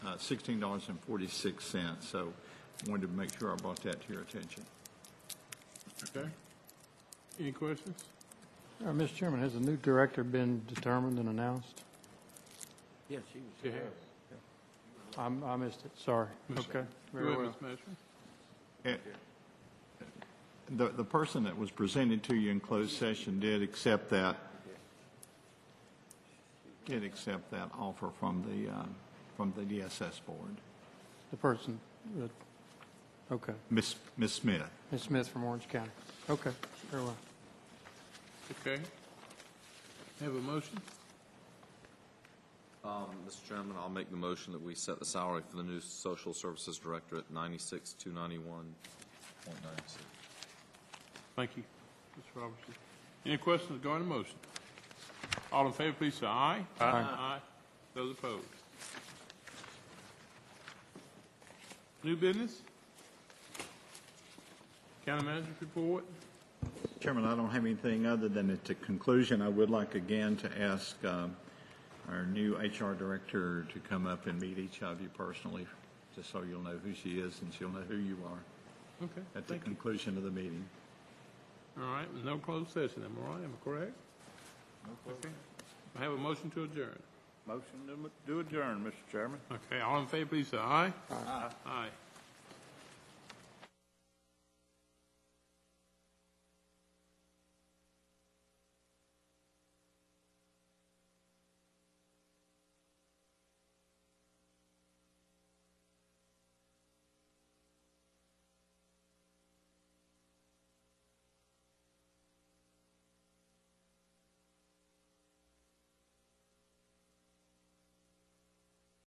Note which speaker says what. Speaker 1: uh, $16.46, so wanted to make sure I brought that to your attention.
Speaker 2: Okay. Any questions?
Speaker 3: Uh, Mr. Chairman, has a new director been determined and announced?
Speaker 4: Yes, she was.
Speaker 2: Yeah.
Speaker 3: I'm- I missed it, sorry. Okay,
Speaker 2: Go
Speaker 3: very
Speaker 2: ahead,
Speaker 3: well.
Speaker 2: Ms. Messer.
Speaker 1: Eh, The, the person that was presented to you in closed session did accept that, did accept that offer from the, uh, from the DSS board.
Speaker 3: The person, that- okay,
Speaker 1: Ms. Ms. Smith?
Speaker 3: Ms. Smith from Orange County. Okay, very well.
Speaker 2: Okay. Have a motion?
Speaker 5: Mr. Um, Chairman, I'll make the motion that we set the salary for the new social services director at ninety-six, two ninety-one point nine six.
Speaker 2: Thank you, Mr. Robertson. Any questions regarding the motion? All in favor, please say aye. Aye. Aye. Those opposed? New business? County manager's report?
Speaker 1: Chairman, I don't have anything other than at the conclusion, I would like again to ask um, our new HR director to come up and meet each of you personally, just so you'll know who she is and she'll know who you are
Speaker 2: Okay,
Speaker 1: at the
Speaker 2: thank you.
Speaker 1: conclusion of the meeting.
Speaker 2: All right, no closed session, am I right? Am I correct? Okay. I have a motion to adjourn.
Speaker 6: Motion to m- do adjourn, Mr. Chairman.
Speaker 2: Okay, all in favor, please say aye. Aye. Aye.